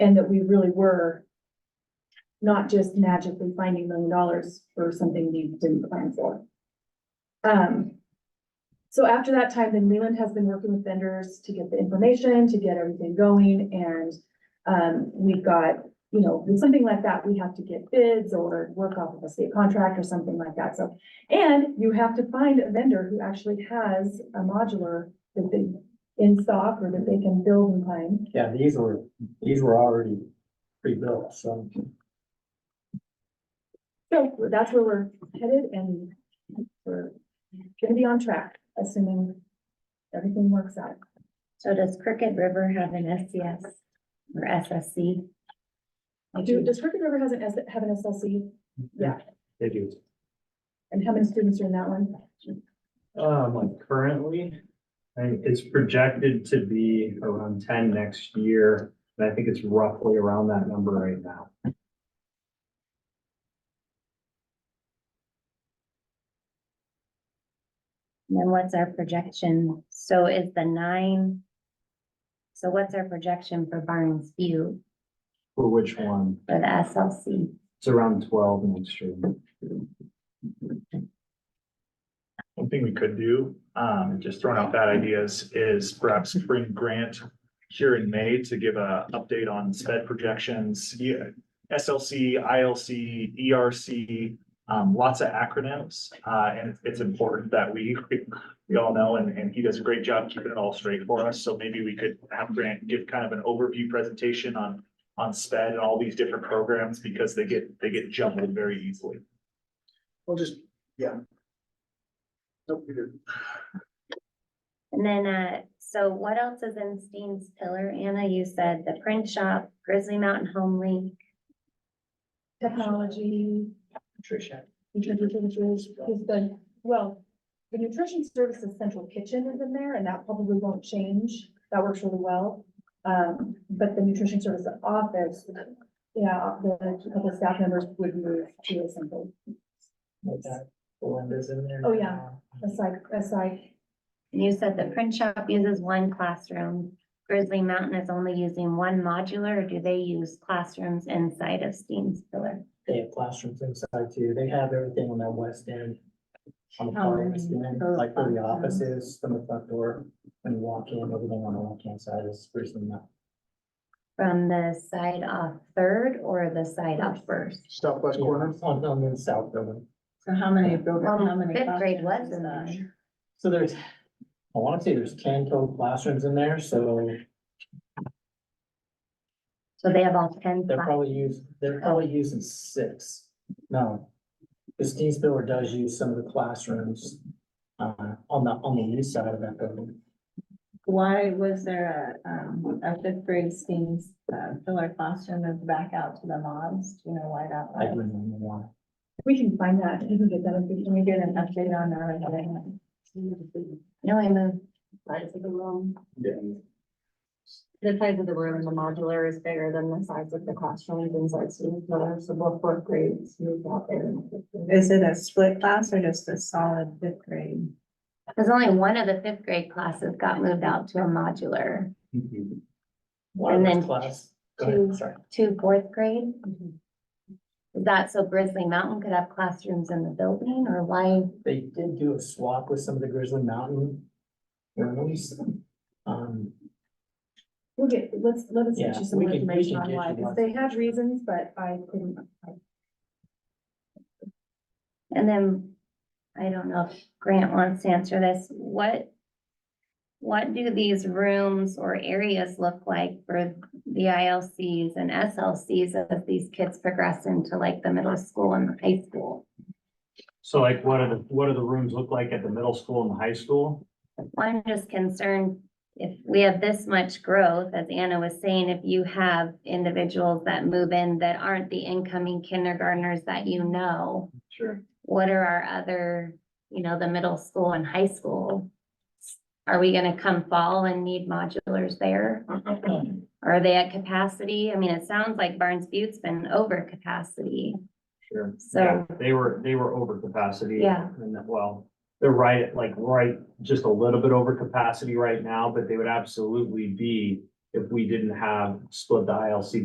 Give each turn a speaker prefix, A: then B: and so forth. A: and that we really were not just magically finding million dollars for something we didn't plan for. Um, so after that time, then Leland has been working with vendors to get the information, to get everything going, and um, we've got, you know, with something like that, we have to get bids or work off of a state contract or something like that, so. And you have to find a vendor who actually has a modular that they in stock or that they can build and find.
B: Yeah, these were, these were already pre-built, so.
A: So that's where we're headed and we're gonna be on track, assuming everything works out.
C: So does Crooked River have an SCS or SSC?
A: Do, does Crooked River has an, S- have an SLC? Yeah,
B: They do.
A: and how many students are in that one?
D: Um, like currently, I think it's projected to be around ten next year, and I think it's roughly around that number right now.
C: And Then what's our projection? So is the nine? So what's our projection for Barnes View
D: For which one?
C: for the SLC?
D: It's around twelve next year.
E: One thing we could do, um, just throwing out bad ideas, is perhaps bring Grant here in May to give a update on sped projections. E, Yeah, SLC, ILC, ERC, E um, lots of acronyms, uh, and it's important that we, we all know, and, and he does a great job keeping it all straight for us, so maybe we could have Grant give kind of an overview presentation on, on sped and all these different programs, because they get, they get jumbled very easily.
F: Well, just, oh, yeah. Nope, we didn't.
C: And then, uh, so what else is in Steen's pillar? Anna, you said the print shop, Grizzly Mountain Home Link.
A: Technology,
B: Patricia.
A: nutrition services, is the, well, the nutrition services central kitchen is in there and that probably won't change. That works really well. Um, but the nutrition services office, yeah, the a couple of staff members would move to a central
B: Like that, the windows in there.
A: Oh, yeah. Aside, aside,
C: And you said the print shop uses one classroom. Grizzly Mountain is only using one modular, or do they use classrooms inside of Steen's pillar?
B: They have classrooms inside too. They have everything on that west end. On the far west end,
C: those
B: like where the
C: classrooms.
B: offices, from the front door, when you walk in, everything on the left-hand side is first and that.
C: From the side off Third or the side off First?
F: Southwest corner,
B: On, on the south building.
G: So how many, build-
C: Well,
G: how many?
C: fifth grade
G: classrooms
C: was in
G: is
C: there.
B: So there's, I wanna say there's ten total classrooms in there, so
C: So they have all ten
B: They're
C: classes.
B: probably using,
C: Oh.
B: they're probably using six. No. Christine Spiller does use some of the classrooms uh, on the, on the east side of that building.
G: Why was there a, um, a fifth grade Steam's, uh, filler classroom moved back out to the mods? Do you know why that
B: I don't
G: was?
B: remember why.
A: we can find that, we can get that
G: Can we
A: information.
G: get an update on that?
C: No, I moved.
H: size of the room.
D: Yeah.
H: The size of the room, the modular is bigger than the size of the classrooms inside student center, so both fourth grades moved out there.
G: Is it a split class or just a solid fifth grade?
C: Cause only one of the fifth grade classes got moved out to a modular.
B: Why was
C: And then
B: class? Go
C: two-
B: ahead, sorry.
C: Two fourth grade?
H: Mm-hmm.
C: Is that so Grizzly Mountain could have classrooms in the building or why?
B: They did do a swap with some of the Grizzly Mountain rooms. Um,
A: We'll get, let's, let us get
B: Yeah,
A: you some
B: we can- we
A: information
B: can
A: on
B: get
A: why,
B: you
A: because
B: lots
A: they
B: of-
A: had reasons, but I couldn't.
C: And then, I don't know if Grant wants to answer this, what? What do these rooms or areas look like for the ILCs and SLCs as these kids progress into like the middle school and the high school?
D: So like, what are the, what do the rooms look like at the middle school and the high school?
C: I'm just concerned if we have this much growth, as Anna was saying, if you have individuals that move in that aren't the incoming kindergartners that you know,
D: Sure.
C: what are our other, you know, the middle school and high school? Are we gonna come fall and need modulars there?
F: Uh,
C: Are they at capacity? I mean, it sounds like Barnes Butte's been over capacity,
D: Sure.
C: so,
D: Yeah, They were, they were over capacity.
C: Yeah.
D: And that, well, they're right, at like, right, just a little bit over capacity right now, but they would absolutely be if we didn't have split the ILC